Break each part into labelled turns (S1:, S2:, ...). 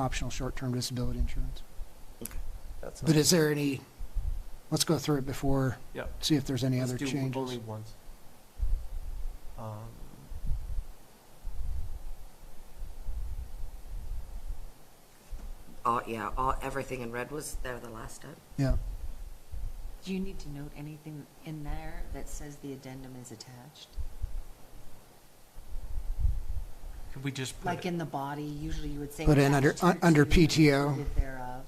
S1: optional short-term disability insurance.
S2: That's
S1: But is there any, let's go through it before,
S2: Yep.
S1: see if there's any
S2: Let's
S1: other
S2: do Only
S1: changes.
S2: ones. Um,
S3: All, yeah, all, everything in red was there the last time.
S1: Yeah,
S4: Do you need to note anything in there that says the addendum is attached?
S2: could we just put
S4: Like
S2: it-
S4: in the body, usually you would say.
S1: Put in under-
S4: attached hereto
S1: under
S4: and
S1: PTO.
S4: included Thereof.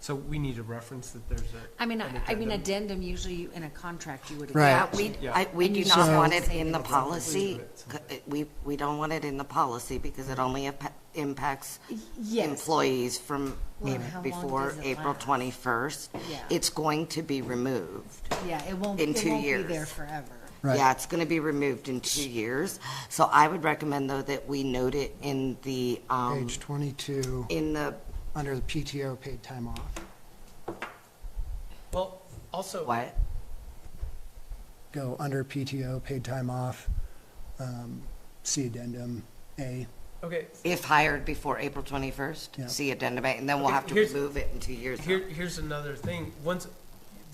S2: so we need to reference that there's a.
S4: I mean,
S2: an
S4: I, I mean,
S2: addendum.
S4: addendum usually you, in a contract, you would.
S1: Right.
S3: Yeah,
S4: attach
S3: we,
S4: it.
S2: Yeah.
S3: I, we
S4: And
S3: do
S4: you
S3: not
S1: should
S3: want
S4: always
S3: it
S4: say
S3: in the
S4: that it's
S3: policy.
S2: included somewhere.
S3: We, we don't want it in the policy because it only impa- impacts
S4: Yes,
S3: employees from
S4: Well, and how long
S3: before
S4: does it
S3: April
S4: last?
S3: 21st.
S4: Yeah.
S3: It's going to be removed.
S4: yeah, it won't,
S3: in
S4: it
S3: two
S4: won't be
S3: years.
S4: there forever.
S3: Yeah,
S1: right.
S3: it's going to be removed in two years. So I would recommend though that we note it in the, um,
S1: Page twenty-two,
S3: in the,
S1: under the PTO paid time off.
S2: Well, also.
S3: what?
S1: Go under PTO paid time off, um, see addendum A.
S2: Okay,
S3: If hired before April
S1: Yeah.
S3: 21st, see addendum A, and then we'll
S2: Okay,
S3: have to
S2: here's-
S3: remove it in two years.
S2: here, here's another thing. Once,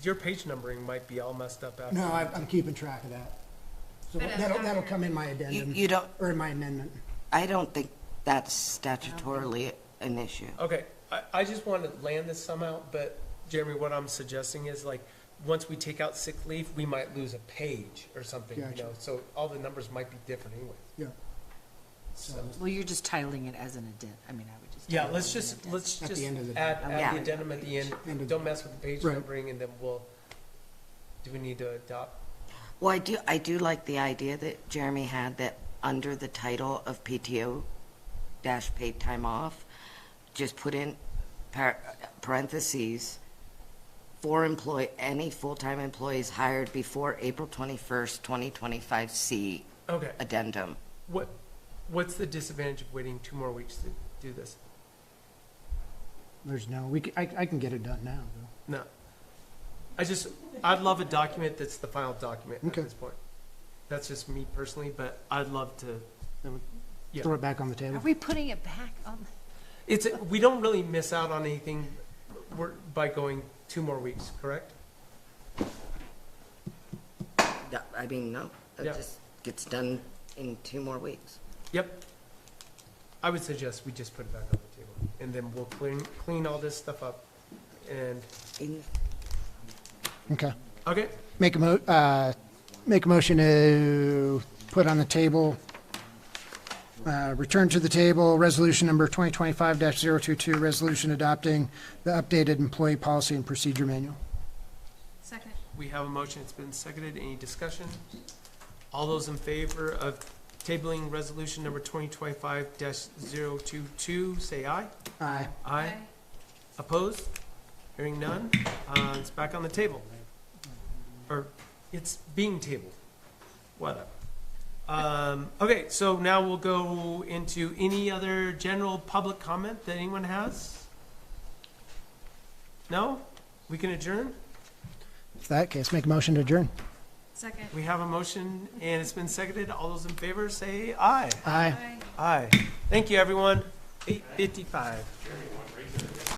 S2: your page numbering might be all messed up after.
S1: No, I, I'm keeping track of that. So that'll, that'll come in my
S3: You,
S1: addendum,
S3: uh, you don't,
S1: or in my amendment.
S3: I don't think that's statutorily an issue.
S2: Okay, I, I just want to land this somehow, but Jeremy, what I'm suggesting is like, once we take out sick leave, we might lose a page or something, you
S1: Gotcha.
S2: know, so all the numbers might be different anyway.
S1: Yeah.
S2: So,
S4: Well, you're just titling it as an addendum, I mean, I would just.
S2: yeah,
S4: title
S2: let's
S4: it an
S2: just,
S4: addendum.
S2: let's
S1: At the
S2: just
S1: end of
S2: add,
S1: the-
S2: add
S3: Yeah.
S2: the addendum at the
S1: End
S2: end,
S1: of-
S2: don't mess with the page
S1: Right.
S2: numbering, and then we'll, do we need to adopt?
S3: Well, I do, I do like the idea that Jeremy had that under the title of PTO dash paid time off, just put in par- parentheses, for employ, any full-time employees hired before April twenty-first, twenty twenty-five, C
S2: Okay,
S3: addendum.
S2: what, what's the disadvantage of waiting two more weeks to do this?
S1: There's no, we, c- I, I can get it done now, though.
S2: No. I just, I'd love a document that's the final document at
S1: Okay.
S2: this point. That's just me personally, but I'd love to,
S1: Then we
S2: Yeah.
S1: Throw it back on the
S4: Are
S1: table.
S4: we putting it back on?
S2: it's, we don't really miss out on anything we're- by going two more weeks, correct?
S3: That- I mean, no, it
S2: Yeah.
S3: just gets done in two more weeks.
S2: Yep. I would suggest we just put it back on the table, and then we'll clean, clean all this stuff up, and,
S3: In-
S1: Okay.
S2: okay?
S1: Make a mo, uh, make a motion to put on the table, uh, return to the table, resolution number 2025-022, resolution adopting the updated employee policy and procedure manual.
S5: Second.
S2: We have a motion, it's been seconded, any discussion? All those in favor of tabling resolution number twenty twenty-five 22 say aye.
S1: Aye.
S2: Aye. Opposed? Hearing none, uh, it's back on the table. Or, it's being tabled, whatever. Um, okay, so now we'll go into any other general public comment that anyone has? No? We can adjourn?
S1: If that case, make a motion to adjourn.
S5: Second.
S2: We have a motion and it's been seconded. All those in favor say aye.
S1: Aye.
S5: Aye.
S2: Aye. Thank you, everyone. Eight fifty-five.